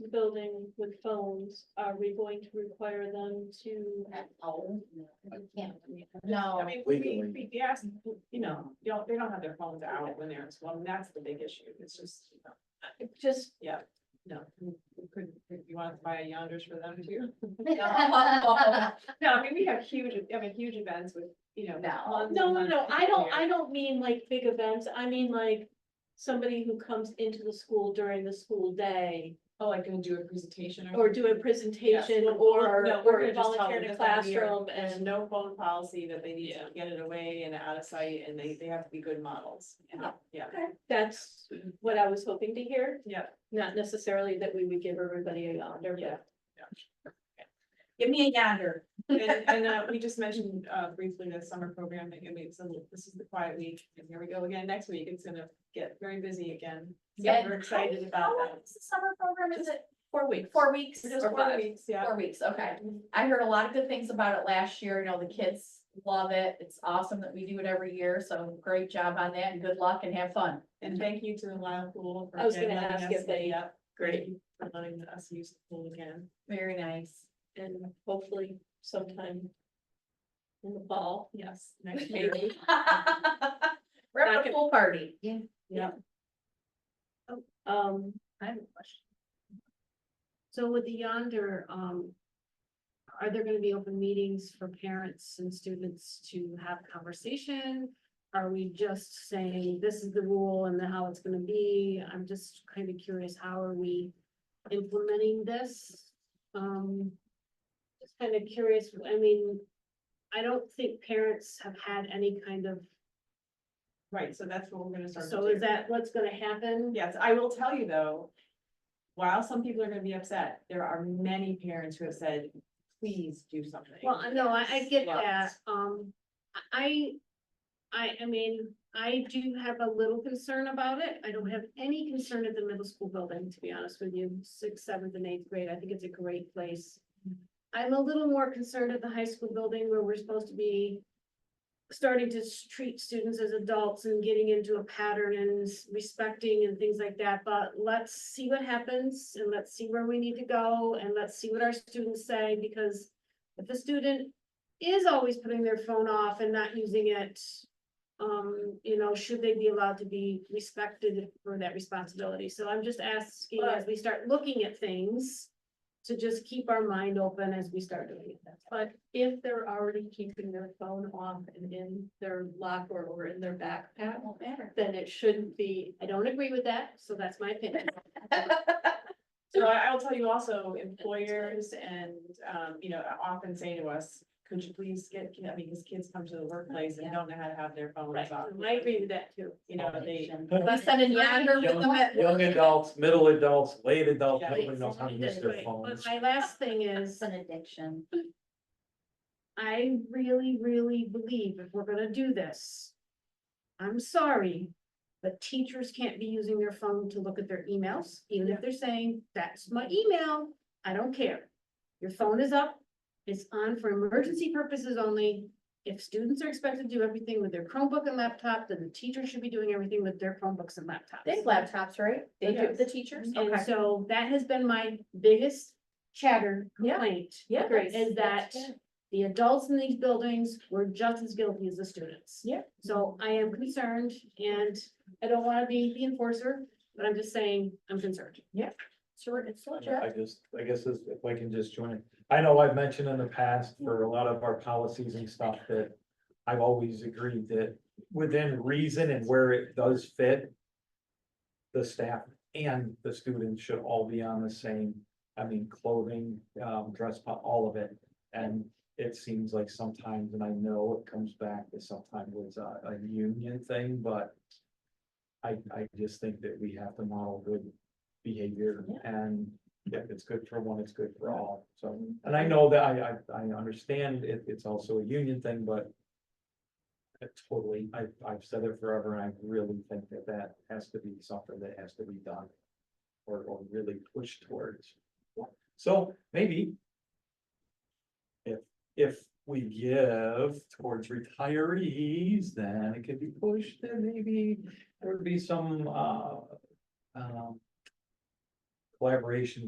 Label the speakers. Speaker 1: the building with phones, are we going to require them to?
Speaker 2: Oh, no, you can't.
Speaker 3: I
Speaker 2: No,
Speaker 3: mean, Oh, we,
Speaker 4: Legally.
Speaker 3: we, we ask, you know, they don't, they don't have their phones out when they're in school, and that's the big issue, it's just, you know,
Speaker 1: Just,
Speaker 3: no. you- you Could, if you want to buy a yonders for them too.
Speaker 2: no.
Speaker 3: No, I mean, we have huge, I mean, huge events with, you know.
Speaker 2: No.
Speaker 3: months and
Speaker 1: no, no,
Speaker 3: months
Speaker 1: no, I don't,
Speaker 3: prepare.
Speaker 1: I don't mean like big events, I mean like somebody who comes into the school during the school day
Speaker 3: Oh, like gonna do a presentation or.
Speaker 1: or do a presentation
Speaker 3: Yes, we'll-
Speaker 1: or,
Speaker 3: no, we're
Speaker 1: or
Speaker 3: gonna just tell
Speaker 1: volunteer
Speaker 3: them
Speaker 1: in a
Speaker 3: that's not here.
Speaker 1: classroom
Speaker 3: There's
Speaker 1: and.
Speaker 3: no phone policy that they need
Speaker 1: Yeah.
Speaker 3: to get it away and out of sight, and they, they have to be good models,
Speaker 1: Yeah.
Speaker 3: yeah,
Speaker 1: That's what I was hoping to hear,
Speaker 3: yeah.
Speaker 1: not necessarily that we would give everybody a yonder, but.
Speaker 2: Give me a yonder.
Speaker 3: And, and, uh, we just mentioned, uh, briefly the summer program, I mean, so this is the quiet week, and here we go again next week, it's gonna get very busy again. So
Speaker 2: And
Speaker 3: we're excited
Speaker 2: how-
Speaker 3: about
Speaker 2: how long
Speaker 3: that.
Speaker 2: is the Summer program, is it
Speaker 3: Four weeks.
Speaker 2: four weeks
Speaker 3: We're
Speaker 2: or
Speaker 3: Just four
Speaker 2: five?
Speaker 3: weeks, yeah.
Speaker 2: Four weeks, okay. I heard a lot of good things about it last year. You know, the kids love it. It's awesome that we do it every year. So great job on that and good luck and have fun.
Speaker 3: And thank you to the Lyle Pool. for
Speaker 1: I was gonna
Speaker 3: letting
Speaker 1: ask
Speaker 3: us-
Speaker 1: if they-
Speaker 3: yeah,
Speaker 1: Great.
Speaker 3: For letting us use the pool again.
Speaker 2: Very nice.
Speaker 1: And hopefully sometime in the fall.
Speaker 3: Yes, next year.
Speaker 1: Maybe.
Speaker 2: We're having a pool party. Yeah.
Speaker 1: Um,
Speaker 2: I have a question.
Speaker 5: So with the yonder, um. Are there gonna be open meetings for parents and students to have conversation? Are we just saying this is the rule and then how it's gonna be? I'm just kind of curious, how are we implementing this? Um. Just kind of curious, I mean, I don't think parents have had any kind of,
Speaker 3: Right, so that's what we're gonna start. to
Speaker 5: so is
Speaker 3: do.
Speaker 5: that what's gonna happen?
Speaker 3: Yes, I will tell you though, while some people are gonna be upset, there are many parents who have said, please do something.
Speaker 5: Well, I know, I, I get that,
Speaker 3: Lots.
Speaker 5: um, I, I, I mean, I do have a little concern about it, I don't have any concern at the middle school building, to be honest with you, sixth, seventh, and eighth grade, I think it's a great place. I'm a little more concerned at the high school building where we're supposed to be starting to s- treat students as adults and getting into a pattern and s- respecting and things like that, but let's see what happens, and let's see where we need to go, and let's see what our students say, because if the student is always putting their phone off and not using it, um, you know, should they be allowed to be respected for that responsibility? So I'm just asking, as we start looking at things, to just keep our mind open as we start doing it. That's all.
Speaker 1: but if they're already keeping their phone off and in their locker or in their backpack,
Speaker 2: Won't matter.
Speaker 1: then it shouldn't be, I don't agree with that, so that's my opinion.
Speaker 3: So I, I'll tell you also, employers and, um, you know, often say to us, could you please get, I mean, these kids come to the workplace and don't know how to have their phones
Speaker 1: Right,
Speaker 3: off.
Speaker 1: I agree with that too.
Speaker 3: You know, they,
Speaker 2: We send a yonder with them at
Speaker 4: Young adults, middle adults, late adults,
Speaker 3: Yeah.
Speaker 4: nobody knows how to use their
Speaker 5: Right, But
Speaker 4: phones.
Speaker 5: my last thing is.
Speaker 2: It's an addiction.
Speaker 5: I really, really believe if we're gonna do this. I'm sorry, but teachers can't be using their phone to look at their emails, even if they're saying, that's my email, I don't care. Your phone is up, it's on for emergency purposes only. If students are expected to do everything with their Chromebook and laptop, then the teacher should be doing everything with their Chromebooks and laptops.
Speaker 2: They have laptops, right? They do,
Speaker 3: Yes.
Speaker 2: the teachers?
Speaker 5: And so that has been my biggest chatter
Speaker 2: Yeah.
Speaker 5: complaint.
Speaker 2: Yeah,
Speaker 1: Agree.
Speaker 2: that's-
Speaker 5: Is that
Speaker 2: that's fair.
Speaker 5: the adults in these buildings were just as guilty as the students.
Speaker 3: Yeah.
Speaker 5: So I am concerned and I don't wanna be the enforcer, but I'm just saying, I'm concerned.
Speaker 2: Sure, it's
Speaker 4: I
Speaker 2: legit.
Speaker 4: just, I guess this- if I can just join it. I know I've mentioned in the past for a lot of our policies and stuff that I've always agreed that within reason and where it does fit, the staff and the students should all be on the same, I mean, clothing, um, dress, po- all of it. And it seems like sometimes, and I know it comes back to sometimes it's a, a union thing, but I, I just think that we have to model good behavior and if it's good for one, it's good for all, so. And I know that I, I, I understand it, it's also a union thing, but I totally, I, I've said it forever, and I really think that that has to be something that has to be done or, or really pushed towards. So maybe if, if we give towards retirees, then it could be pushed, then maybe there would be some, uh, um, collaboration